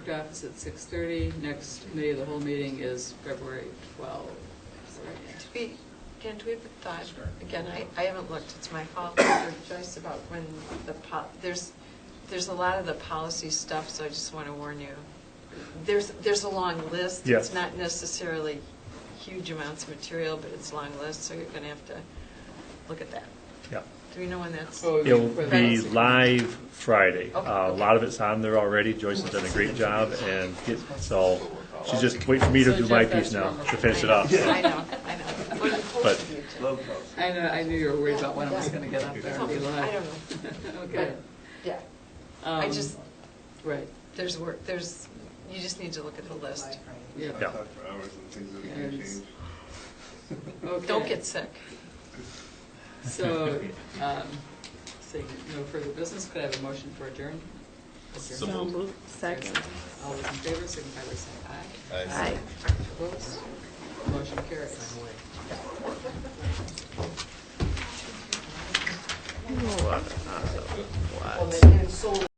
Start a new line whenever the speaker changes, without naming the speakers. district office at six thirty. Next committee of the whole meeting is February twelve.
Do we, Dan, do we have a thought, again, I, I haven't looked, it's my fault, with Joyce, about when the, po- there's, there's a lot of the policy stuff, so I just want to warn you. There's, there's a long list.
Yes.
It's not necessarily huge amounts of material, but it's a long list, so you're going to have to look at that.
Yeah.
Do we know when that's?
Oh,
It'll
For the-
be live Friday.
Okay,
Uh, A
okay.
lot of it's on there already. Joyce has done a great job and get, so she's just waiting for me to
So
do my
Jeff, that's
piece now
wrong.
to finish it off.
I know, I know. Well, you
But-
posted it, too.
I know, I knew you were worried about when I was gonna get up there
It's
and be
okay. I
live.
don't know,
Okay.
yeah. I
Um,
just,
Right,
there's work, there's, you just need to look at the list.
yeah.
Yeah.
For hours and things that
Yeah,
can
it's-
change.
Okay.
Don't get sick.
So, um, seeing no further business, could I have a motion for adjourn?
So
Adjourn.
moved.
Second.
All those in favor, signify by saying aye.
Aye.
Opposed? Motion carries.
What?